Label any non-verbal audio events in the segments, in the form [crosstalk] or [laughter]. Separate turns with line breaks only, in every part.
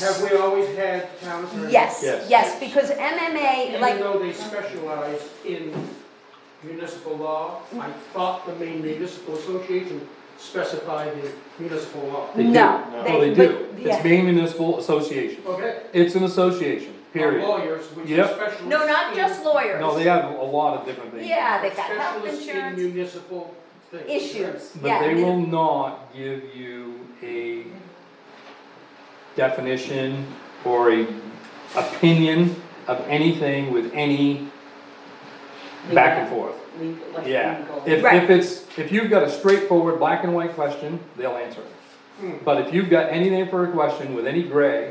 Have we always had town attorneys?
Yes,
Yes.
yes, because MMA,
Even
like,
though they specialize in municipal law,
Mm-hmm.
I thought the Maine Municipal Association specified in municipal law.
They do.
No,
No,
they-
they do.
but- yeah.
It's Maine Municipal Association.
Okay,
It's an association,
our
period.
lawyers, which are
Yep.
specialists.
no, not
in-
just lawyers.
No, they have a lot of different things.
Yeah, they got health
Specialists in
insurance
municipal things.
issues,
But
yeah.
they will not give you a definition or a opinion of anything with any back and forth.
Legal, like
Yeah,
legal.
if,
Right.
if it's, if you've got a straightforward black and white question, they'll answer
Hmm.
it. But if you've got anything for a question with any gray,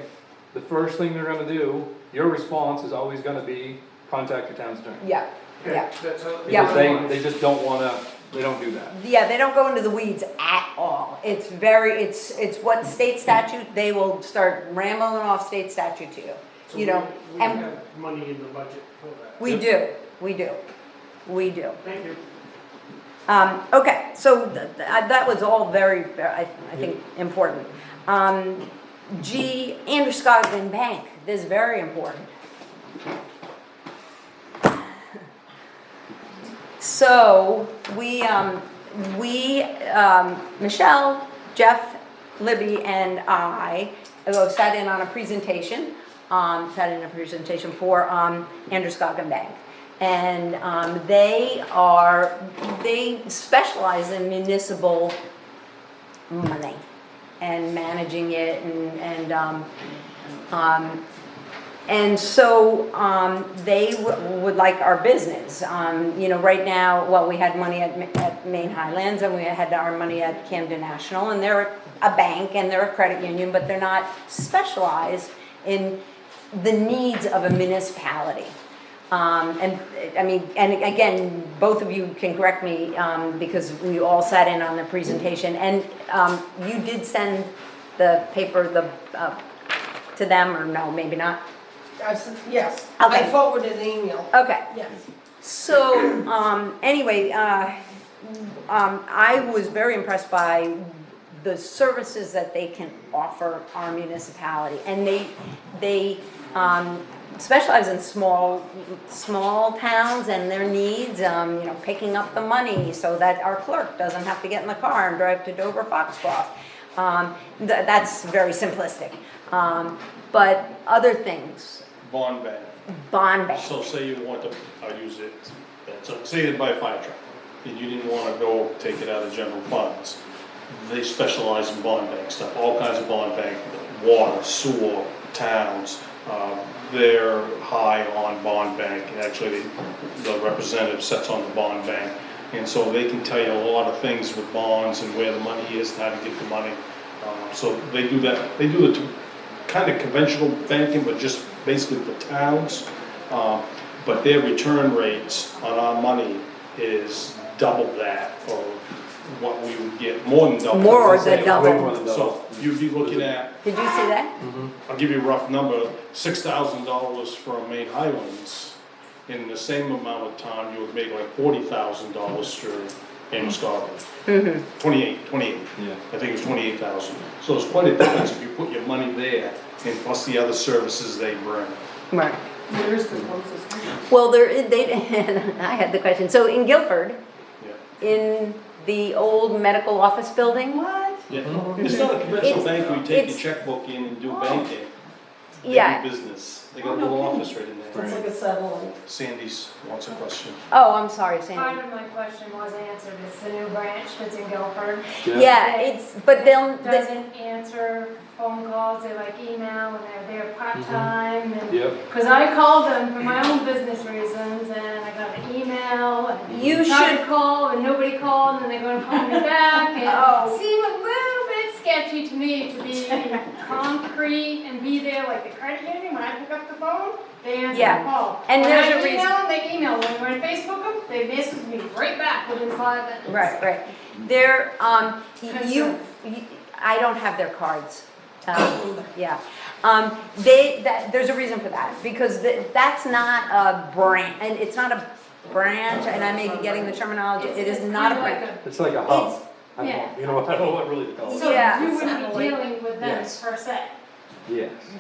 the first thing they're gonna do, your response is always gonna be, contact your town attorney.
Yeah,
Okay,
yeah,
That's how.
Yeah.
Because they, they just don't wanna, they don't do that.
yeah, they don't go into the weeds at all. It's very, it's, it's what state statute, they will start rambling off state statute to you,
So
you know,
we- We
and-
have money in the budget for that.
we do, we do, we do.
Thank you.
Um, okay, so th- th- I- that was all very, ver- I, I think, important. Um, G, Andrew Scoggin Bank, this is very important. So, we, um, we, um, Michelle, Jeff, Libby, and I uh, sat in on a presentation, um, sat in a presentation for, um, Andrew Scoggin Bank. And, um, they are, they specialize in municipal money and managing it and, and, um, um, and so, um, they w- would like our business, um, you know, right now, well, we had money at, Ma- at Maine Highlands and we had our money at Camden National and they're a bank and they're a credit union, but they're not specialized in the needs of a municipality. Um, and, uh, I mean, and again, both of you can correct me, um, because we all sat in on the presentation and, um, you did send the paper, the, uh, to them or no, maybe not?
I said, yes,
Okay.
I forwarded an email,
Okay,
yes.
so, um, anyway, uh, um, I was very impressed by the services that they can offer our municipality. And they, they, um, specialize in small, small towns and their needs, um, you know, picking up the money so that our clerk doesn't have to get in the car and drive to Dover Foxcroft. Um, th- that's very simplistic. Um, but other things,
bond ban.
bond bank.
So say you want to, I'll use it, so say you buy a fire truck, and you didn't wanna go take it out of general funds. They specialize in bond bank stuff, all kinds of bond bank, water, sewer, towns. Um, They're high on bond bank, and actually, the representative sets on the bond bank. And so they can tell you a lot of things with bonds and where the money is, and how to get the money. Um, So they do that, they do the kind of conventional banking, but just basically for towns. Um, But their return rates on our money is double that of what we would get, more than double.
More than
Way
double.
more than
So you'd be looking at,
Did you see that?
I'll give you a rough number, six thousand dollars from Maine Highlands. In the same amount of time, you would make like forty thousand dollars through Amos Garden. Twenty-eight, twenty-eight.
Yeah.
I think it was twenty-eight thousand. So it's quite a difference if you put your money there and plus the other services they bring.
Right.
Where is the closest one?
Well, there, they, [laughs] I had the question, so in Guilford,
Yeah.
in the old medical office building?
What?
Yeah, it's not a conventional
It's-
bank where you take
it's-
your checkbook in and do banking. They do
Yeah.
Business. They got a
Oh, no
little
kidding.
office right in
It's
there.
like a satellite.
Sandy's wants a question.
Oh, I'm sorry, Sandy.
Part of my question was answered, it's the new branch that's in Guilford.
Yeah, it's, but they'll, they-
Doesn't answer phone calls, they like email, and they're there part-time, and,
Yep.
because I called them for my own business reasons, and I got an email, and
you
tried
should,
to call, and nobody called, and then they're gonna call me back,
[laughs] Oh.
and seemed a little bit sketchy to me to be
[laughs]
concrete and be there like the credit union, when I pick up the phone, they answer
Yeah.
the call.
And
When
there's
I
a reason-
email them, They email, when when I Facebook them, they message me right back within five minutes.
right, right. There, um, you,
Concern.
you- I don't have their cards.
[coughs]
Um, Yeah. Um, they, that, there's a reason for that, because th- that's not a brand, and it's not a branch, and I may be getting the terminology, it is not a
kinda like
branch.
It's like a
It's,
hub. I don't,
yeah.
know- you know, I don't know what really to call it.
So
Yeah.
you wouldn't be
Satellite.
dealing with them
Yes.
per se.
Yes.